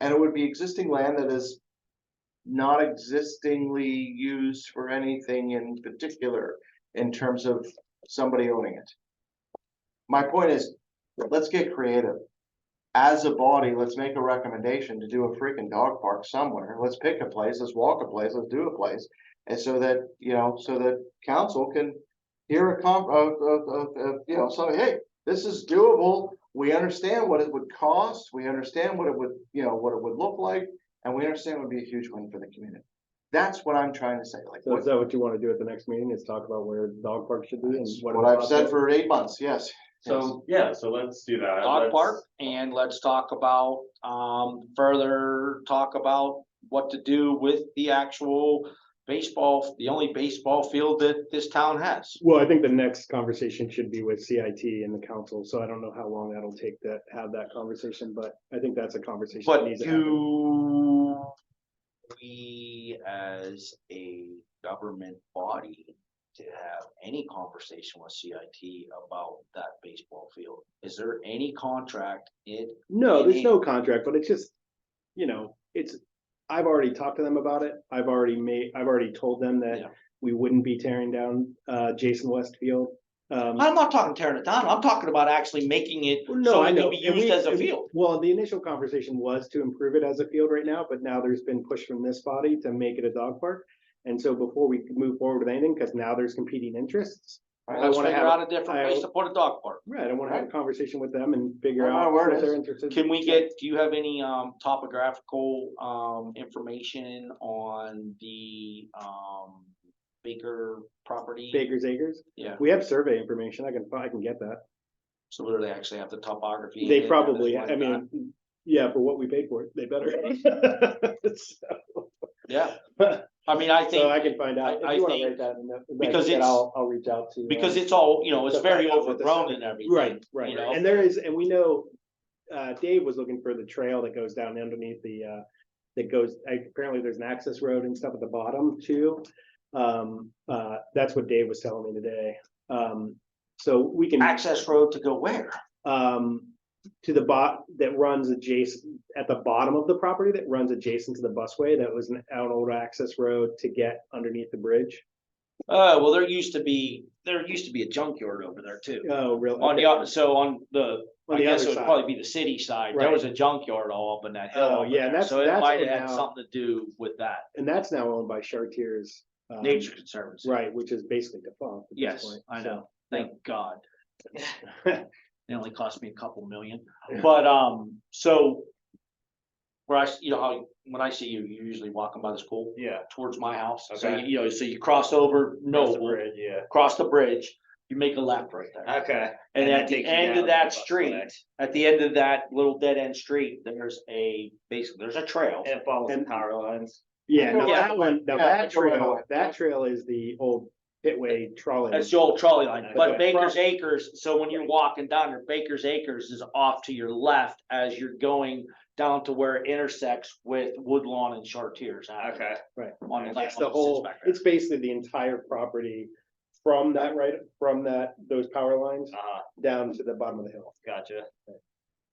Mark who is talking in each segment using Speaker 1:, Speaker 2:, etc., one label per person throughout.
Speaker 1: And it would be existing land that is not existingly used for anything in particular in terms of somebody owning it. My point is, let's get creative. As a body, let's make a recommendation to do a freaking dog park somewhere. Let's pick a place, let's walk a place, let's do a place. And so that, you know, so that council can hear a comp, of, of, of, of, you know, so hey, this is doable. We understand what it would cost, we understand what it would, you know, what it would look like, and we understand it would be a huge win for the community. That's what I'm trying to say, like,
Speaker 2: So is
Speaker 1: what,
Speaker 2: that what you want to do at the next meeting is talk about where the dog park should be and what?
Speaker 1: what I've said for eight months, yes.
Speaker 3: So, yeah, so let's do that.
Speaker 4: dog
Speaker 3: Let's-
Speaker 4: park and let's talk about, um, further talk about what to do with the actual baseball, the only baseball field that this town has.
Speaker 2: Well, I think the next conversation should be with CIT and the council, so I don't know how long that'll take to have that conversation, but I think that's a conversation. that
Speaker 4: But
Speaker 2: needs to happen.
Speaker 4: do we as a government body to have any conversation with CIT about that baseball field? Is there any contract in
Speaker 2: No, there's
Speaker 4: Maybe.
Speaker 2: no contract, but it's just, you know, it's, I've already talked to them about it. I've already made, I've already told them
Speaker 4: Yeah.
Speaker 2: that we wouldn't be tearing down uh Jason Westfield. Um,
Speaker 4: I'm not talking tearing it down, I'm talking about actually making it
Speaker 2: no,
Speaker 4: so
Speaker 2: I
Speaker 4: it
Speaker 2: know.
Speaker 4: can be
Speaker 2: and we-
Speaker 4: used as a
Speaker 2: and-
Speaker 4: field.
Speaker 2: Well, the initial conversation was to improve it as a field right now, but now there's been push from this body to make it a dog park. And so before we move forward with anything, because now there's competing interests,
Speaker 1: I
Speaker 4: Let's
Speaker 2: wanna
Speaker 4: figure
Speaker 2: have-
Speaker 4: out a different place
Speaker 2: I-
Speaker 4: to put a dog park.
Speaker 2: right, I want to have a conversation with them and figure
Speaker 1: Well, my
Speaker 2: out
Speaker 1: word
Speaker 2: what
Speaker 1: is,
Speaker 2: they're interested.
Speaker 4: Can we get, do you have any um topographical um information on the um Baker property?
Speaker 2: Baker's Acres?
Speaker 4: Yeah,
Speaker 2: We have survey information. I can, I can get that.
Speaker 4: so where they actually have the topography. in it
Speaker 2: They
Speaker 4: and
Speaker 2: probably, I
Speaker 4: everything like
Speaker 2: mean, yeah, for what we paid for it, they better.
Speaker 4: that. Yeah, I mean, I
Speaker 2: So I
Speaker 4: think,
Speaker 2: can find out.
Speaker 4: I- I
Speaker 2: If you wanna
Speaker 4: think-
Speaker 2: write that in the- like,
Speaker 4: because
Speaker 2: then
Speaker 4: it's-
Speaker 2: I'll, I'll reach out to. uh,
Speaker 4: because it's all, you know, it's
Speaker 2: To find
Speaker 4: very
Speaker 2: out what the
Speaker 4: overgrown
Speaker 2: site-
Speaker 4: and everything.
Speaker 2: Right, right,
Speaker 4: you
Speaker 2: right.
Speaker 4: know?
Speaker 2: and there is, and we know, uh, Dave was looking for the trail that goes down underneath the, uh, that goes, apparently there's an access road and stuff at the bottom too. Um, uh, that's what Dave was telling me today. Um, so we can.
Speaker 4: Access road to go where?
Speaker 2: um, to the bot that runs adjacent, at the bottom of the property that runs adjacent to the busway, that was an out old access road to get underneath the bridge.
Speaker 4: Uh, well, there used to be, there used to be a junkyard over there too.
Speaker 2: Oh, really?
Speaker 4: On the, oth- so on the,
Speaker 2: On
Speaker 4: I
Speaker 2: the
Speaker 4: guess it
Speaker 2: other
Speaker 4: would
Speaker 2: side.
Speaker 4: probably be the city side, there
Speaker 2: Right.
Speaker 4: was a junkyard all up in that hill.
Speaker 2: Oh,
Speaker 4: over
Speaker 2: yeah,
Speaker 4: there,
Speaker 2: that's-
Speaker 4: So it
Speaker 2: that's
Speaker 4: might
Speaker 2: what
Speaker 4: have had
Speaker 2: now-
Speaker 4: something to do with that,
Speaker 2: And that's now owned by Chartiers. um,
Speaker 4: Nature Conservancy,
Speaker 2: Right, which is basically defunct. at this
Speaker 4: yes,
Speaker 2: point,
Speaker 4: I
Speaker 2: so.
Speaker 4: know, thank God. It only cost me a couple million, but, um, so. Where I, s- you know, how, when I see you, you're usually walking by the school
Speaker 3: Yeah.
Speaker 4: towards my house, so,
Speaker 3: Okay.
Speaker 4: you you know, so you cross over
Speaker 3: Cross the
Speaker 4: Noble,
Speaker 3: bridge, Yeah.
Speaker 4: cross the bridge, you make a left right there.
Speaker 3: Okay.
Speaker 4: And
Speaker 3: that
Speaker 4: at the
Speaker 3: takes you
Speaker 4: end
Speaker 3: down
Speaker 4: of
Speaker 3: to
Speaker 4: that
Speaker 3: Buffalo
Speaker 4: street,
Speaker 3: Neck.
Speaker 4: at the end of that little dead end street, there's a, basically, there's a trail.
Speaker 3: And it follows the
Speaker 2: And-
Speaker 3: power lines.
Speaker 2: Yeah,
Speaker 1: I
Speaker 2: no,
Speaker 1: go
Speaker 2: that
Speaker 1: that
Speaker 2: one, now
Speaker 1: Yeah, I
Speaker 2: that
Speaker 1: go that
Speaker 2: trail,
Speaker 1: way.
Speaker 2: that trail is the old Pitway trolley.
Speaker 4: That's the old trolley line, but
Speaker 2: Okay.
Speaker 4: Baker's Acres, so when you're walking down there, Baker's Acres is off to your left as you're going down to where it intersects with Woodlawn and Chartiers. Avenue.
Speaker 3: Okay.
Speaker 4: On the
Speaker 2: It's
Speaker 4: left.
Speaker 2: the
Speaker 4: it sits
Speaker 2: whole,
Speaker 4: back there.
Speaker 2: it's basically the entire property from that right, from that, those power lines
Speaker 4: Uh-huh.
Speaker 3: Uh,
Speaker 2: down to the bottom of the hill.
Speaker 3: gotcha.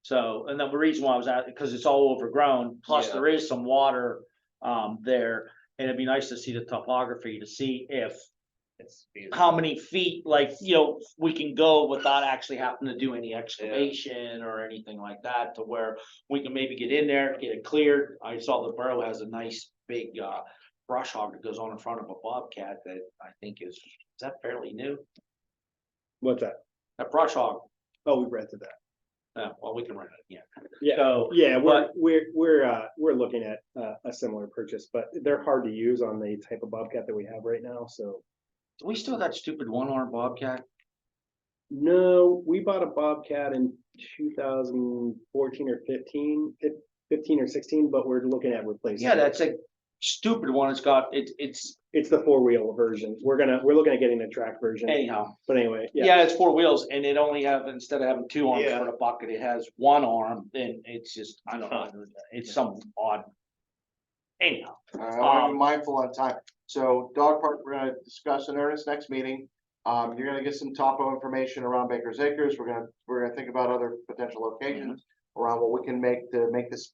Speaker 4: So, and then the reason why I was at, because it's all overgrown, plus
Speaker 3: Yeah.
Speaker 4: there is some water um there. And it'd be nice to see the topography to see if
Speaker 3: It's beautiful.
Speaker 4: how many feet, like, you know, we can go without actually having to do any excavation or anything like that to where we can maybe get in there, get it cleared. I saw the borough has a nice big uh brush hog that goes on in front of a bobcat that I think is, is that fairly new?
Speaker 2: What's that?
Speaker 4: That brush hog,
Speaker 2: Oh, we rented that.
Speaker 4: uh, well, we can rent it, yeah.
Speaker 2: Yeah,
Speaker 4: So,
Speaker 2: yeah, we're,
Speaker 4: but-
Speaker 2: we're, we're, uh, we're looking at, uh, a similar purchase, but they're hard to use on the type of Bobcat that we have right now, so.
Speaker 4: do we still got stupid one armed bobcat?
Speaker 2: No, we bought a Bobcat in two thousand fourteen or 15, fif- 15 or sixteen, but we're looking at replacing.
Speaker 4: Yeah,
Speaker 2: it.
Speaker 4: that's a stupid one. It's got, it, it's
Speaker 2: It's the four-wheel version. We're gonna, we're looking at getting a track version,
Speaker 4: anyhow.
Speaker 2: but anyway, yeah.
Speaker 4: Yeah, it's four wheels and it only have, instead of having two arms
Speaker 3: Yeah.
Speaker 4: for the bucket, it has one arm and it's just, I don't know. It's some odd. Anyhow,
Speaker 1: Uh, I'm
Speaker 4: Um,
Speaker 1: mindful on time. So dog park, we're gonna discuss in earnest next meeting. Um, you're gonna get some topo information around Baker's Acres. We're gonna, we're gonna think about other potential locations around what we can make to make this